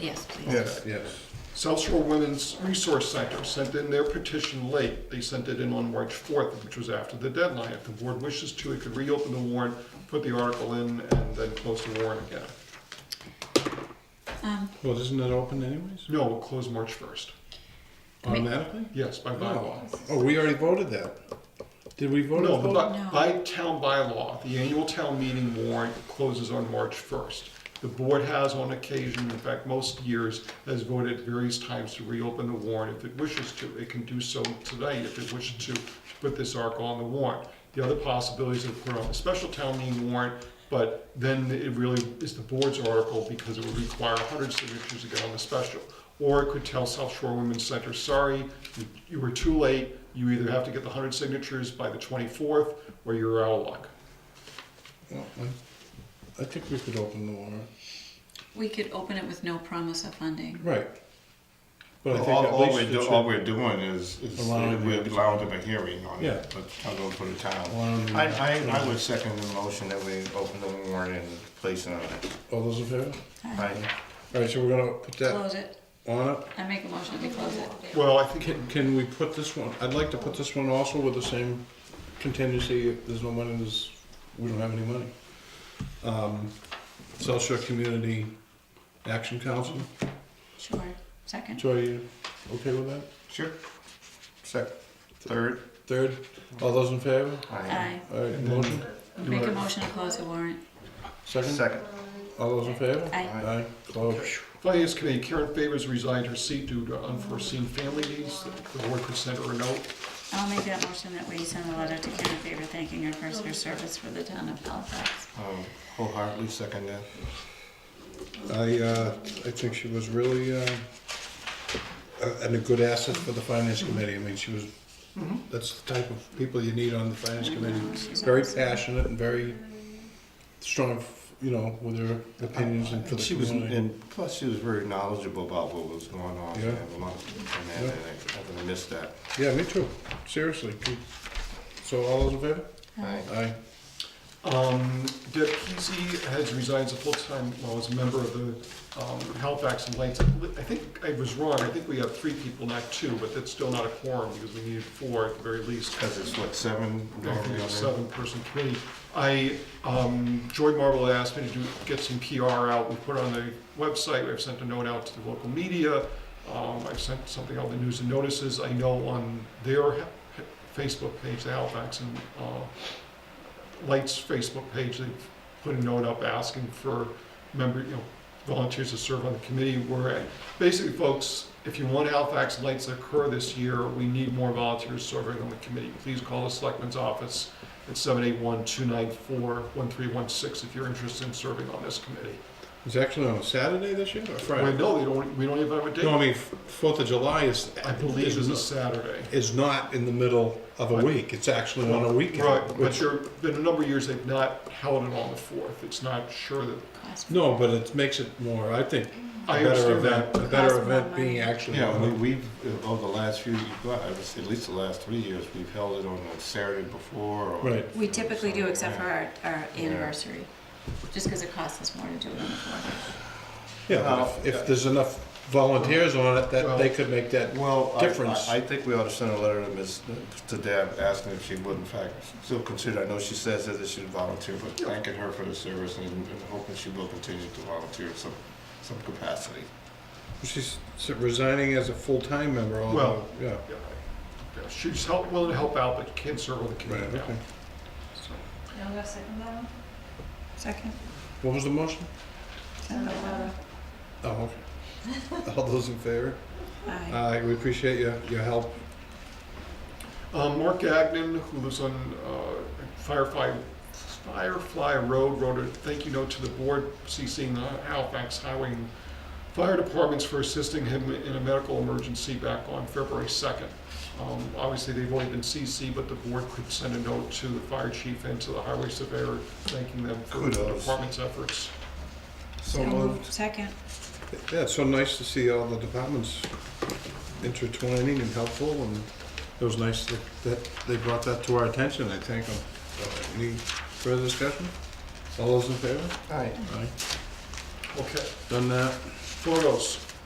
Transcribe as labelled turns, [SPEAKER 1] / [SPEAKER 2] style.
[SPEAKER 1] Yes, please.
[SPEAKER 2] Yes.
[SPEAKER 3] Yes.
[SPEAKER 2] South Shore Women's Resource Center sent in their petition late. They sent it in on March 4th, which was after the deadline. If the board wishes to, it could reopen the warrant, put the article in, and then close the warrant again.
[SPEAKER 1] Um,
[SPEAKER 3] Well, isn't it open anyways?
[SPEAKER 2] No, we'll close March 1st.
[SPEAKER 3] Automatically?
[SPEAKER 2] Yes, by bylaw.
[SPEAKER 3] No. Oh, we already voted that. Did we vote?
[SPEAKER 2] No,
[SPEAKER 3] on
[SPEAKER 2] but
[SPEAKER 3] that?
[SPEAKER 2] by- by town bylaw, the annual town meeting warrant closes on March 1st. The board has on occasion, in fact, most years, has voted various times to reopen the warrant if it wishes to. It can do so tonight if it wishes to, to put this article on the warrant. The other possibility is to put on a special town meeting warrant, but then it really is the board's article because it would require 100 signatures to get on the special. Or it could tell South Shore Women's Center, sorry, you- you were too late, you either have to get the 100 signatures by the 24th, or you're out of luck.
[SPEAKER 3] Well, Oh, I- I think we could open the warrant.
[SPEAKER 1] we could open it with no promise of funding.
[SPEAKER 3] Right. But I think
[SPEAKER 4] All,
[SPEAKER 3] at
[SPEAKER 4] all we're,
[SPEAKER 3] least it
[SPEAKER 4] do- all
[SPEAKER 3] should
[SPEAKER 4] we're doing is, is
[SPEAKER 3] Allowing
[SPEAKER 4] we're
[SPEAKER 3] the-
[SPEAKER 4] allowing them a hearing on
[SPEAKER 3] Yeah.
[SPEAKER 4] it, but I'll go for the town.
[SPEAKER 3] Allowing the-
[SPEAKER 4] I, I, I would second the motion that we open the warrant and place it on it.
[SPEAKER 3] All those in favor?
[SPEAKER 4] Aye.
[SPEAKER 3] All right, so we're gonna put that
[SPEAKER 1] Close it.
[SPEAKER 3] on it.
[SPEAKER 1] I make a motion that we close it.
[SPEAKER 2] Well, I think,
[SPEAKER 3] Can, can we put this one, I'd like to put this one also with the same contingency, if there's no money, there's, we don't have any money. Um, South Shore Community Action Council,
[SPEAKER 1] Sure. Second.
[SPEAKER 3] Joy, you okay with that?
[SPEAKER 4] Sure. Second, third.
[SPEAKER 3] Third, all those in favor?
[SPEAKER 1] Aye.
[SPEAKER 3] All right, motion,
[SPEAKER 1] Make a motion to close the warrant.
[SPEAKER 3] second,
[SPEAKER 4] Second.
[SPEAKER 3] all those in favor?
[SPEAKER 1] Aye.
[SPEAKER 3] Aye, close.
[SPEAKER 2] Finance Committee, Karen Favors resigned her seat due to unforeseen family needs. The board could send her a note.
[SPEAKER 1] I'll make that motion that we send a letter to Karen Favor thanking her for her service for the town of Halifax.
[SPEAKER 4] Um, wholeheartedly second that.
[SPEAKER 3] I, uh, I think she was really, uh, a- and a good asset for the finance committee. I mean, she was, that's the type of people you need on the finance committee.
[SPEAKER 1] she's
[SPEAKER 3] Very
[SPEAKER 1] awesome.
[SPEAKER 3] passionate and very strong, you know, with her opinions and for the
[SPEAKER 4] She was,
[SPEAKER 3] community.
[SPEAKER 4] and plus she was very knowledgeable about what was going on.
[SPEAKER 3] Yeah.
[SPEAKER 4] and a lot of- and that, and I- I'm gonna miss that.
[SPEAKER 3] Yeah, me too, seriously. So all those in favor?
[SPEAKER 4] Aye.
[SPEAKER 3] Aye.
[SPEAKER 2] Um, Deb Kesey has resigned as a full-time, well, as a member of the um, Halifax and Lights. I think I was wrong, I think we have three people, not two, but that's still not a quorum because we needed four at the very least.
[SPEAKER 4] Cause it's what, seven?
[SPEAKER 2] seven-person committee. I, um, Joy Marble had asked me to do, get some PR out, we put it on the website, I've sent a note out to the local media, um, I've sent something out in the news and notices, I know on their he- he- Facebook page, the Halifax and, uh, Lights Facebook page, they've put a note up asking for member, you know, volunteers to serve on the committee, we're at, basically, folks, if you want Halifax Lights to occur this year, we need more volunteers serving on the committee. Please call the Selectmen's Office at 781-294-1316 if you're interested in serving on this committee.
[SPEAKER 3] It's actually on a Saturday this year or
[SPEAKER 2] Wait,
[SPEAKER 3] Friday?
[SPEAKER 2] no, they don't, we don't even have a
[SPEAKER 3] No, I
[SPEAKER 2] date.
[SPEAKER 3] mean, F- Fourth of July is,
[SPEAKER 2] I believe it's a Saturday.
[SPEAKER 3] is not in the middle of a week. It's actually on a weekend.
[SPEAKER 2] Right, but
[SPEAKER 3] which-
[SPEAKER 2] there have been a number of years they've not held it on the 4th. It's not sure that,
[SPEAKER 1] Class-
[SPEAKER 3] No, but it makes it more, I think, a
[SPEAKER 2] I
[SPEAKER 3] better
[SPEAKER 2] understand
[SPEAKER 3] event,
[SPEAKER 2] that.
[SPEAKER 3] a better
[SPEAKER 1] Costs more
[SPEAKER 3] event being
[SPEAKER 1] money.
[SPEAKER 3] actually.
[SPEAKER 4] Yeah, we, we've, uh, over the last few, well, I would say at least the last three years, we've held it on a Saturday before or.
[SPEAKER 3] Right.
[SPEAKER 1] We typically do except for our, our
[SPEAKER 4] Yeah.
[SPEAKER 1] anniversary, just because it costs us more to do it on the fourth.
[SPEAKER 3] Yeah, but if- if there's enough volunteers on it, that they
[SPEAKER 2] Well-
[SPEAKER 3] could make that,
[SPEAKER 4] Well, I,
[SPEAKER 3] Difference.
[SPEAKER 4] I I think we ought to send a letter to Ms., to Deb, asking if she would in fact still consider, I know she says that she volunteer, but thanking her for the service and and hoping she will continue to volunteer in some, some capacity.
[SPEAKER 3] she's resigning as a full-time member, although,
[SPEAKER 2] Well-
[SPEAKER 3] yeah.
[SPEAKER 2] yeah, yeah, she's help, willing to help out, but can't serve on the
[SPEAKER 3] Right,
[SPEAKER 2] committee now.
[SPEAKER 3] okay.
[SPEAKER 2] So,
[SPEAKER 1] Second.
[SPEAKER 3] What was the motion?
[SPEAKER 1] Send a letter.
[SPEAKER 3] Oh, okay. All those in favor?
[SPEAKER 1] Aye.
[SPEAKER 3] Uh, we appreciate your, your help.
[SPEAKER 2] Um, Mark Gagnon, who lives on uh, Firefly, Firefly Road, wrote a thank you note to the board, CCing the Halifax Highway and Fire Departments for assisting him in a medical emergency back on February 2nd. Um, Obviously, they've only been CC, but the board could send a note to the fire chief and to the highway surveyor, thanking them for the
[SPEAKER 4] Kudos.
[SPEAKER 2] department's efforts.
[SPEAKER 4] So
[SPEAKER 1] Second.
[SPEAKER 3] Yeah, it's so nice to see all the departments intertwining and helpful, and it was nice that, that they brought that to our attention, I thank them. So, Any further discussion? All those in favor?
[SPEAKER 4] All right.
[SPEAKER 3] Aye.
[SPEAKER 2] Okay.
[SPEAKER 3] Done that.
[SPEAKER 2] Photos.